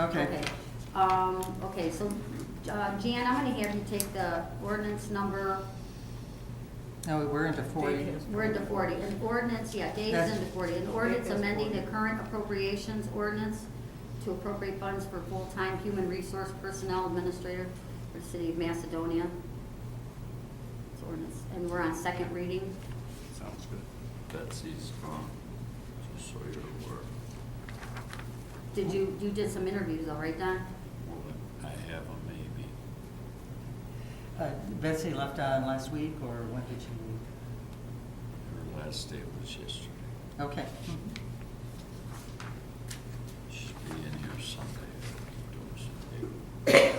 Okay. Um, okay, so, uh, Jan, I'm gonna have you take the ordinance number, No, we were into forty. we're into forty, an ordinance, yeah, Dave's That's- into forty, an ordinance amending the current appropriations ordinance to appropriate funds for full-time human resource personnel administrator for the city of Macedonia. It's ordinance, and we're on second reading. Sounds good. Betsy's on, just so you're aware. Did you, you did some interviews all right, Don? I have a maybe. Uh, Betsy left on last week, or when did she leave? Her last day was yesterday. Okay. She'll be in here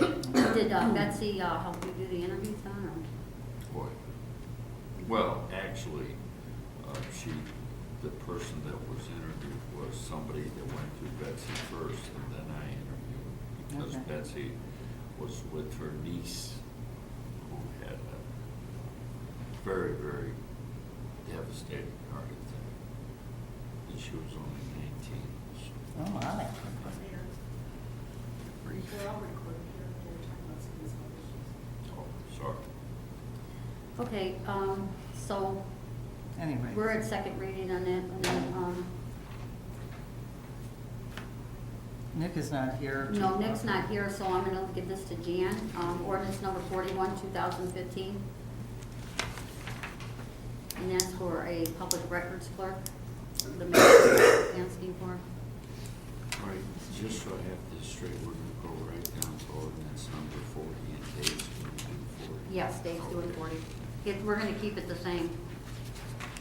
someday. if you don't Did uh, Betsy, uh, help you do the interviews, Don, or? see- Boy. Well, actually, uh, she, the person that was interviewed was somebody that went to Betsy first and then I interviewed. Because Okay. Betsy was with her niece who had a very, very devastating heart attack. And she was only nineteen, so. Oh, wow. They're all recorded here, they're talking about some of these other issues. Oh, sorry. Okay, um, so Anyway. we're at second reading on it, and then, um, Nick is not here. to- no, Nick's not here, so I'm gonna give this to Jan, um, ordinance number forty-one, two thousand fifteen. And that's for a public records clerk, the mayor's asking for. All right, just so I have this straight, we're gonna go right down to ordinance number forty, and Dave's gonna do forty. Yes, Dave's doing Okay. forty. If, we're gonna keep it the same.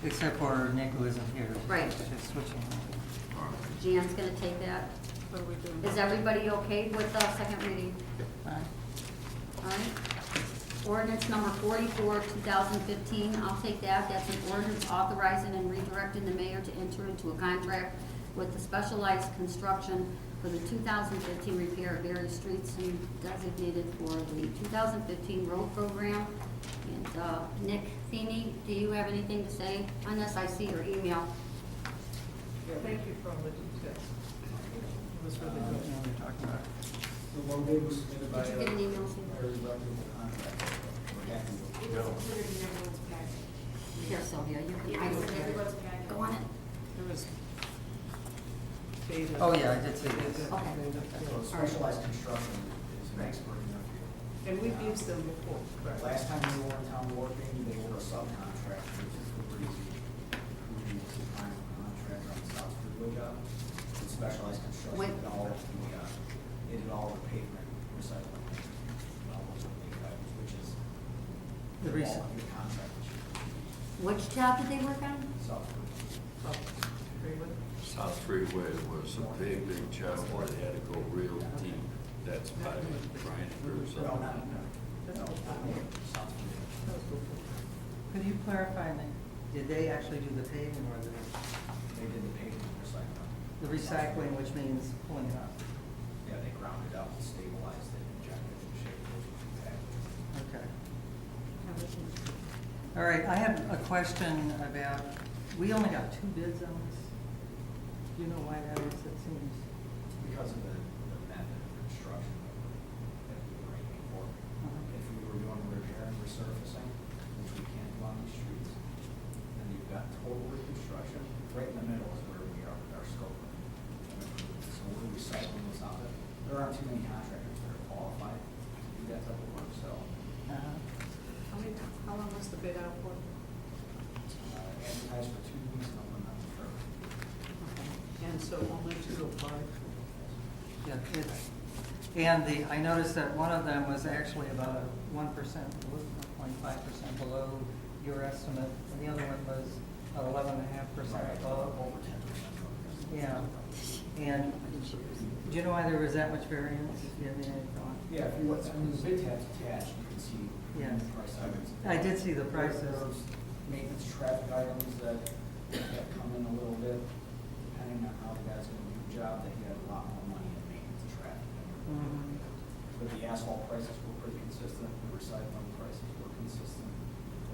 Except for Nick who isn't here. Right. Just switching. All right, Jan's gonna take that. What are we doing? Is everybody okay with the second reading? Fine. All right. Ordinance number forty-four, two thousand fifteen, I'll take that. That's an ordinance authorizing and redirecting the mayor to enter into a contract with the specialized construction for the two thousand fifteen repair of various streets and designated for the two thousand fifteen road program. And, uh, Nick Feeney, do you have anything to say on this? I see your email. Thank you for all the details. It was Uh, really now good. we're talking about- The one bid was submitted by Did you get an email? our electrical contractor. We're happy with it. It was included in everyone's packet. Here, Sylvia, you can, I Yeah, it's don't have everyone's it. packet. Go on it. It was data. Oh, yeah, I did see this. Okay. So specialized construction is an expert in their field. And we've used them before. But Last time we were in town working, they were a subcontractor, which is the breezy, who was the prime contractor on the South River job. It specialized Wait. construction, did all of the, uh, they did all the pavement recycling. all those big items, Which is The the rec- bulk of your contract, issue. Which job did they work on? South River. Oh, agree with it? South Freeway was a big, big job, where they had to go real deep, that's by Brian Cruz. No, not, no. That's all. South River. That was before. Could you clarify, Nick, did they actually do the paving or the, They did the pavement recycling. the recycling, which means pulling it up? Yeah, they ground it up, stabilized it, injected it, shaped it, packaged it. Okay. All right, I have a question about, we only got two bids on this. Do you know why that is? It seems, Because of the, the method of construction that we're, that we were aiming for. If we were doing repair and resurfacing, which we can't do on these streets, then you've got total reconstruction, right in the middle is where we are with our scope. So we're recycling this out of, there aren't too many contractors that are qualified to do that type of work, so, uh, How many, how long was the bid out for? uh, advertise for two weeks and open up the curb. And so only two applied. yeah, it's, and the, I noticed that one of them was actually about a one percent, one point five percent below your estimate, and the other one was eleven and a half percent above. Over ten percent. Yeah, and do you know why there was that much variance? Do you have any thought? Yeah, if you, I mean, the bid tab's attached, you can see Yes. the price items. I did see the prices. There's Maintenance traffic items that, that come in a little bit, depending on how the guy's gonna do the job, they get a lot more money in maintenance traffic. Mhm. But the asphalt prices were pretty consistent, the recycling prices were consistent.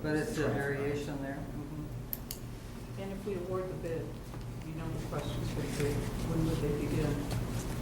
But it's a Traffic. variation there. Mm-hmm. And if we award the bid, you know the questions would be, when would they begin?